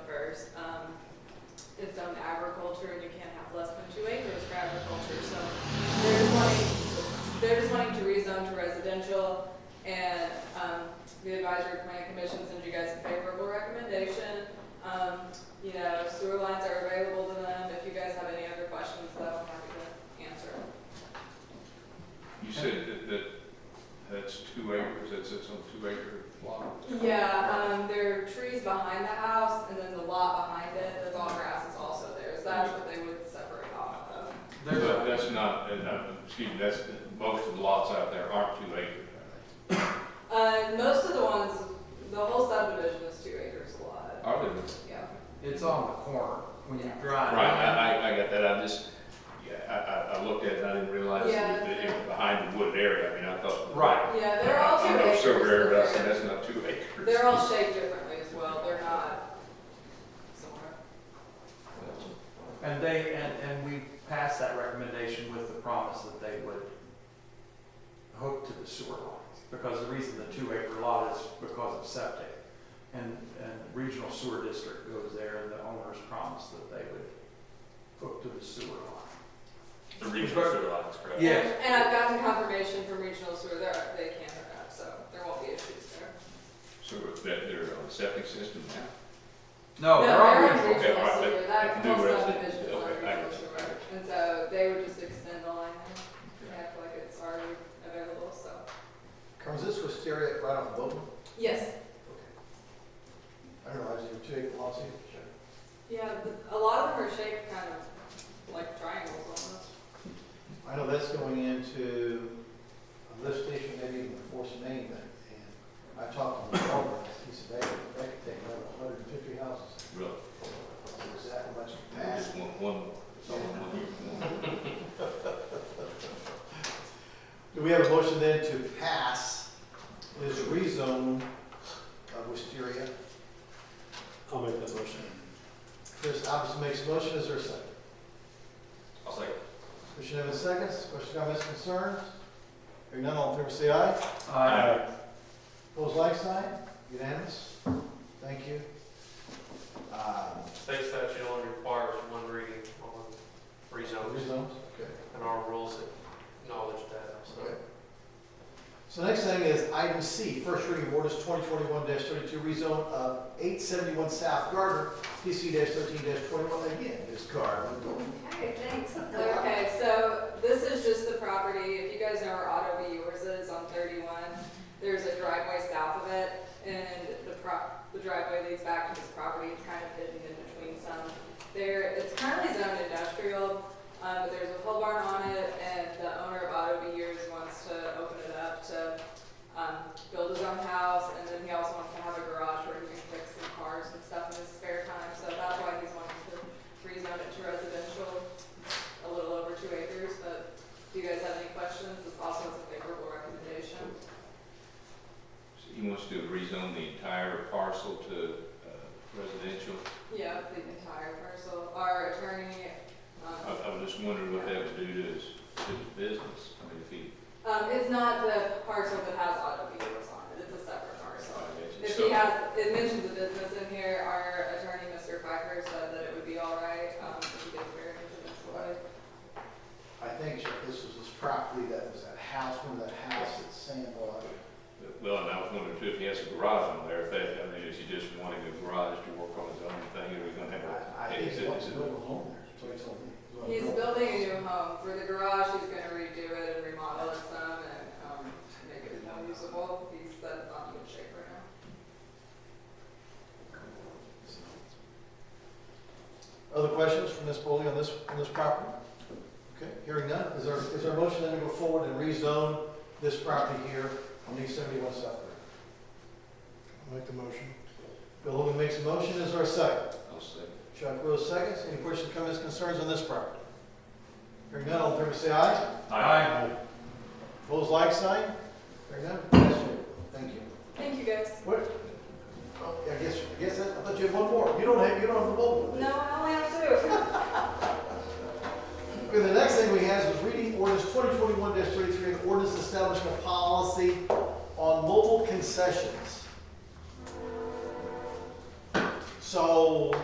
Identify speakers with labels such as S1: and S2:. S1: um, down to residential, and um, the advisory plan commission sends you guys a favorable recommendation. Um, You know, sewer lines are available to them, if you guys have any other questions, though, I'm happy to answer.
S2: You said that, that, that's two acres, that sits on two acre lot.
S1: Yeah, um, there are trees behind the house, and then the lot behind it, the tall grass is also theirs, that's what they would separate off of.
S3: There's
S2: But
S3: a,
S2: that's not, and, uh, excuse me, that's, most of the lots out there aren't two acre.
S1: Uh, most of the ones, the whole subdivision is two acres a lot,
S2: Are there?
S1: yeah.
S3: it's on the corner when you drive.
S2: Right, I, I, I got that, I just, yeah, I, I, I looked at it, and I didn't realize that it was behind the wooded area, I mean, I thought.
S3: Right.
S1: Yeah, they're all
S2: I
S1: two
S2: know
S1: acres.
S2: several area, but I
S1: but
S2: said,
S1: they're-
S2: that's not two acres.
S1: They're all shaped differently as well, they're not similar.
S3: And they, and, and we passed that recommendation with the promise that they would hook to the sewer lines. Because the reason the two acre lot is because of septic. And, and regional sewer district goes there and the owners promised that they would hook to the sewer line.
S4: The regional sewer lines, correct?
S3: Yes.
S1: And- And I've gotten confirmation from regional sewer, they're, they can hook up, so there won't be issues there.
S2: So that they're on septic system now? Oh,
S3: No, they're on
S1: in
S3: regional.
S2: okay,
S1: regional
S2: right,
S1: sewer,
S2: but-
S1: that
S2: but new
S1: whole
S2: residential,
S1: subdivision is on
S2: okay, I
S1: regional
S2: get
S1: sewer.
S2: you.
S1: And so they would just extend the line, and act like it's already available, so.
S5: Comes this wisteria right off Bowman?
S1: Yes,
S5: I don't know, I was in two acre lots here.
S1: yeah, the- a lot of them are shaped kind of like triangles almost.
S5: I know that's going into a lift station, maybe even a force main, but- and I talked to the owner, he said, they, they could take about hundred and fifty houses.
S2: Really?
S5: That's Exactly what's
S2: Just
S5: passed.
S2: one, one, it's only one, one.
S5: Do we have a motion then to pass this rezone of wisteria?
S4: I'll make that motion.
S5: Chris Alves makes a motion, is there a second?
S4: I'll second.
S5: Commissioner Evans seconds, questions, comments, concerns? Hearing none, all in favor say aye.
S3: Uh,
S5: Opposed, like sign, unanimous, thank you. Um,
S6: State statute only requires one reading on rezones,
S5: Rezones, okay.
S6: and our rules acknowledge that, so.
S5: Okay. So next thing is item C, first reading of orders twenty twenty-one thirty-two, rezone of eight seventy-one South Gardner, PC thirteen twenty-one, again, this car.
S1: Okay, thanks. Okay, so this is just the property, if you guys know where Auto B yours is on thirty-one, there's a driveway south of it, and the prop, the driveway leads back to this property, it's kind of hidden in between some. There, it's currently zoned industrial, um, but there's a pole barn on it, and the owner of Auto B yours wants to open it up to, um, build his own house, and then he also wants to have a garage where he can fix some cars and stuff in his spare time, so that's why he's wanting to rezone it to residential, a little over two acres, but do you guys have any questions? This also is a favorable recommendation.
S2: So He wants to rezone the entire parcel to uh, residential.
S1: Yeah, the entire parcel. Our attorney,
S2: I,
S1: um,
S2: I was just wondering what that would do to his, to his business. I mean, if he,
S1: um, it's not the parcel that has auto dealers on it, it's a separate parcel. If he
S2: so,
S1: has, it mentions a business in here, our attorney, Mr. Pfeiffer, said that it would be all right, um, if he did variance in this way.
S5: I think Chuck, this was this property that was that house, remember that house at Sandlot?
S2: well, and I was wondering too, if he has a garage on there, if that, I mean, is he just wanting a garage to work on his own thing, or is he gonna have
S5: I, I
S2: a?
S5: think
S2: is
S5: he
S2: it-
S5: wants
S2: is
S5: to
S2: it-
S5: build a home there, that's what he told me. He wanted to
S1: He's
S5: build a
S1: building a
S5: house.
S1: new home for the garage, he's gonna redo it and remodel it some and, um, make it more usable, he said it's not in good shape right now.
S5: Other questions from Ms. Bowley on this, on this property? Okay, hearing none, is there, is there a motion then to go forward and rezone this property here on East Seventy-One South I'll make the motion. Bill Logan makes a motion, is there a second?
S2: I'll say,
S5: Chuck Rose seconds, any questions, comments, concerns on this property? Hearing none, all in favor say aye.
S3: Aye.
S5: Opposed, like sign? Hearing none, pass favorable. thank you.
S1: Thank you guys.
S5: What, oh, I guess, I guess, that- I thought you had one more, you don't have, you don't have the bullet.
S1: No, I only have two.
S5: Okay, the next thing we have is reading ordinance twenty twenty-one thirty-three, an ordinance establishing a policy on mobile concessions. So,